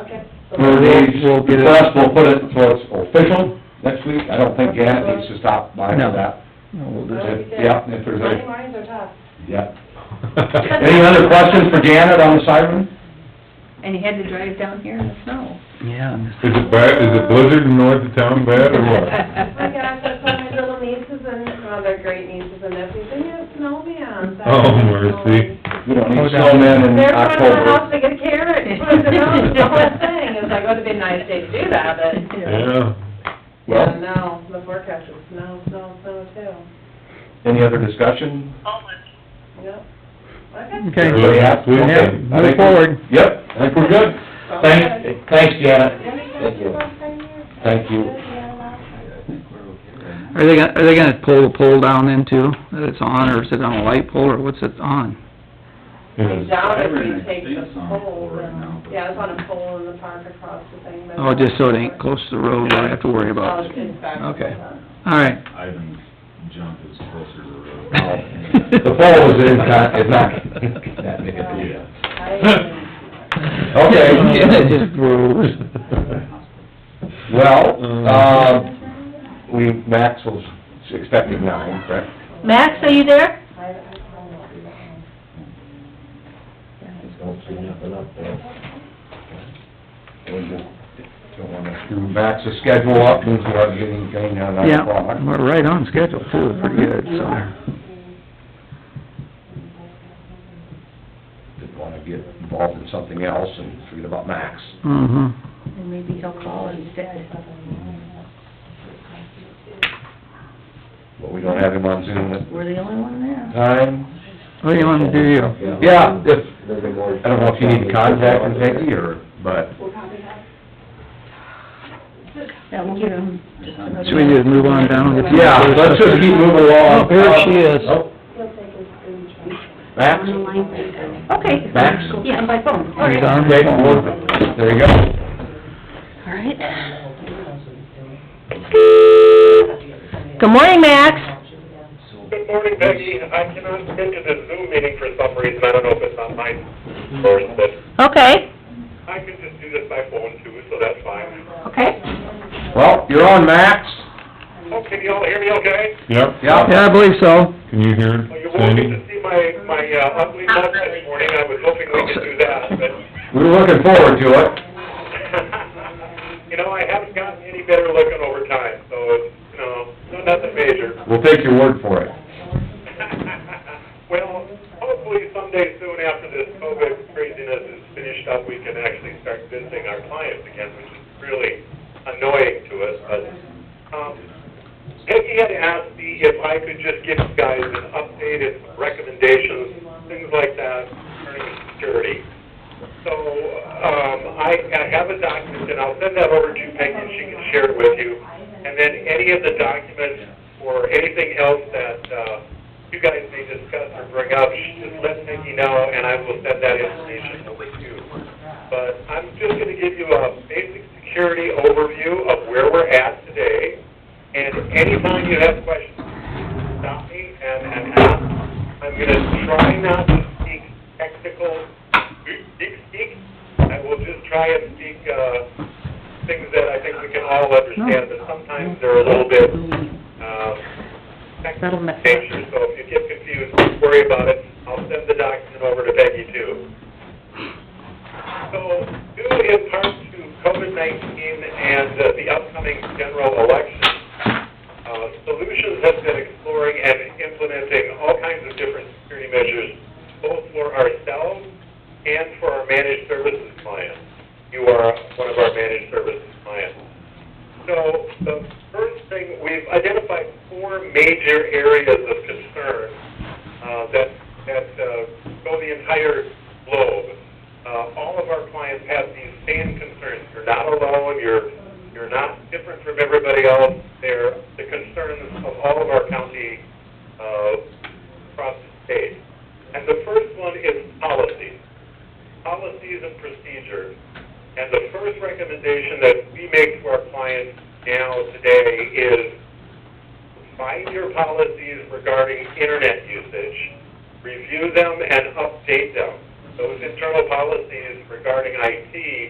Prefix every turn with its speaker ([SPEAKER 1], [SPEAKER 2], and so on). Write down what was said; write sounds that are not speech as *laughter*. [SPEAKER 1] Where these
[SPEAKER 2] We'll get it-
[SPEAKER 1] requests, we'll put it, so it's official next week, I don't think Gannett needs to stop by for
[SPEAKER 2] No.
[SPEAKER 1] that.
[SPEAKER 2] No, we'll
[SPEAKER 3] Well,
[SPEAKER 2] just,
[SPEAKER 3] we did.
[SPEAKER 1] Yeah, if there's any-
[SPEAKER 3] Money mines are tough.
[SPEAKER 1] Yeah. *laughs* Any other questions for Janet on the siren?
[SPEAKER 4] And you had to drive down here in the snow.
[SPEAKER 2] yeah, and this-
[SPEAKER 5] Is it bad, is it blizzard in north of town bad or
[SPEAKER 3] Oh
[SPEAKER 5] what?
[SPEAKER 3] *laughs* my gosh, I saw my little nieces and, well, they're great nieces and nephews, they had a snowman.
[SPEAKER 5] Oh, mercy.
[SPEAKER 1] We don't
[SPEAKER 2] Oh,
[SPEAKER 1] need
[SPEAKER 2] down.
[SPEAKER 1] snowmen in
[SPEAKER 3] They're front of the house,
[SPEAKER 1] October.
[SPEAKER 3] they get a carrot, and put it in the house, the whole thing, it's like, would it be a nice day to do that, but,
[SPEAKER 5] Yeah,
[SPEAKER 1] Well,
[SPEAKER 3] no, the forecast is snow, snow, snow too.
[SPEAKER 1] any other discussion?
[SPEAKER 3] Yep.
[SPEAKER 2] Okay.
[SPEAKER 1] Everybody happy?
[SPEAKER 5] Yeah,
[SPEAKER 1] Okay.
[SPEAKER 2] move
[SPEAKER 1] I think we're-
[SPEAKER 2] forward.
[SPEAKER 1] Yep, I think we're good. Thanks, thanks Janet.
[SPEAKER 3] Thank
[SPEAKER 1] you. Thank you.
[SPEAKER 2] Are they gonna, are they gonna pull the pole down then too, that it's on, or is it on a light pole, or what's it on?
[SPEAKER 3] I
[SPEAKER 5] yeah.
[SPEAKER 3] doubt if
[SPEAKER 6] Everything
[SPEAKER 3] we take the
[SPEAKER 6] stays on a
[SPEAKER 3] pole,
[SPEAKER 6] pole right now,
[SPEAKER 3] though.
[SPEAKER 6] but-
[SPEAKER 3] yeah, it's on a pole in the park across the thing. but-
[SPEAKER 2] Oh, just so it ain't close to the road, where I have to worry
[SPEAKER 3] Oh,
[SPEAKER 2] about
[SPEAKER 3] it's
[SPEAKER 2] it.
[SPEAKER 3] in fact-
[SPEAKER 2] Okay. All right,
[SPEAKER 6] Ivan's jump is closer to the road.
[SPEAKER 1] *laughs* The poll is in, not, is not that big a deal.
[SPEAKER 3] I-
[SPEAKER 2] *laughs*
[SPEAKER 1] Okay.
[SPEAKER 2] It just grows. Mm.
[SPEAKER 1] Well, uh, we, Max was expecting nine, correct?
[SPEAKER 4] Max, are you there?
[SPEAKER 3] I- I don't do that one.
[SPEAKER 1] Don't see nothing up there. We just don't wanna screw Max's schedule up, and we are getting, getting down nine
[SPEAKER 2] yeah,
[SPEAKER 1] o'clock.
[SPEAKER 2] we're right on schedule too, pretty good, so.
[SPEAKER 1] Didn't wanna get involved in something else and forget about Max.
[SPEAKER 2] Mm-hmm.
[SPEAKER 4] And maybe he'll call instead.
[SPEAKER 1] *laughs* But we don't have him on Zoom at
[SPEAKER 4] We're the only one there.
[SPEAKER 1] time.
[SPEAKER 2] What do you wanna do, you?
[SPEAKER 1] Yeah, if, I don't know if you need to contact him, Peggy, or, but,
[SPEAKER 4] That will give him just another...
[SPEAKER 2] Should we just move on down?
[SPEAKER 1] yeah, let's just keep moving along.
[SPEAKER 2] Oh, here she is.
[SPEAKER 1] Oh, Max?
[SPEAKER 4] Okay.
[SPEAKER 1] Max?
[SPEAKER 4] Yeah, by phone. All
[SPEAKER 2] He's
[SPEAKER 4] right.
[SPEAKER 2] on
[SPEAKER 1] Okay,
[SPEAKER 2] the phone.
[SPEAKER 1] well, there you go.
[SPEAKER 4] All right. Good morning, Max.
[SPEAKER 7] Good morning, Becky. I cannot get into the Zoom meeting for some reason. I don't know if it's on mine first, but
[SPEAKER 4] Okay.
[SPEAKER 7] I can just do this by phone too, so that's fine.
[SPEAKER 4] Okay.
[SPEAKER 1] Well, you're on, Max.
[SPEAKER 7] Oh, can y'all hear me okay?
[SPEAKER 5] Yep.
[SPEAKER 2] Yeah, I believe so.
[SPEAKER 5] Can you hear
[SPEAKER 7] Well, you
[SPEAKER 5] it,
[SPEAKER 7] won't get to
[SPEAKER 5] Sandy?
[SPEAKER 7] see my, my uh, ugly mug this morning. I was hoping we could do that, but, *laughs*
[SPEAKER 1] We We're looking forward to it.
[SPEAKER 7] you know, I haven't gotten any better looking over time, so, it's, you know, no- nothing major.
[SPEAKER 1] We'll take your word for it.
[SPEAKER 7] *laughs* Well, hopefully someday soon after this COVID craziness is finished up, we can actually start visiting our clients again, which is really annoying to us, but, um, Peggy had asked me if I could just give you guys an updated recommendations, things like that, concerning security. So, um, I, I have a document, and I'll send that over to Peggy, and she can share it with you. And then any of the documents or anything else that, uh, you guys may discuss or bring up, just let Peggy know, and I will send that information over to you. But I'm just gonna give you a basic security overview of where we're at today. And anytime you have questions, stop me and, and ask. I'm gonna try not to speak technical, speak, speak. I will just try and speak, uh, things that I think we can all understand, but sometimes they're a little bit, um, technical in nature. So if you get confused, don't worry about it. I'll send the document over to Peggy too. So, due in part to COVID-19 and uh, the upcoming general election, uh, Solutions has been exploring and implementing all kinds of different security measures, both for ourselves and for our managed services clients. You are one of our managed services clients. So, the first thing, we've identified four major areas of concern uh, that, that uh, go the entire globe. Uh, All of our clients have these same concerns. You're not alone, you're, you're not different from everybody else. They're the concerns of all of our county uh, across the state. And the first one is policy policies and procedures. And the first recommendation that we make to our clients now today is find your policies regarding internet usage, review them and update them. Those internal policies regarding IT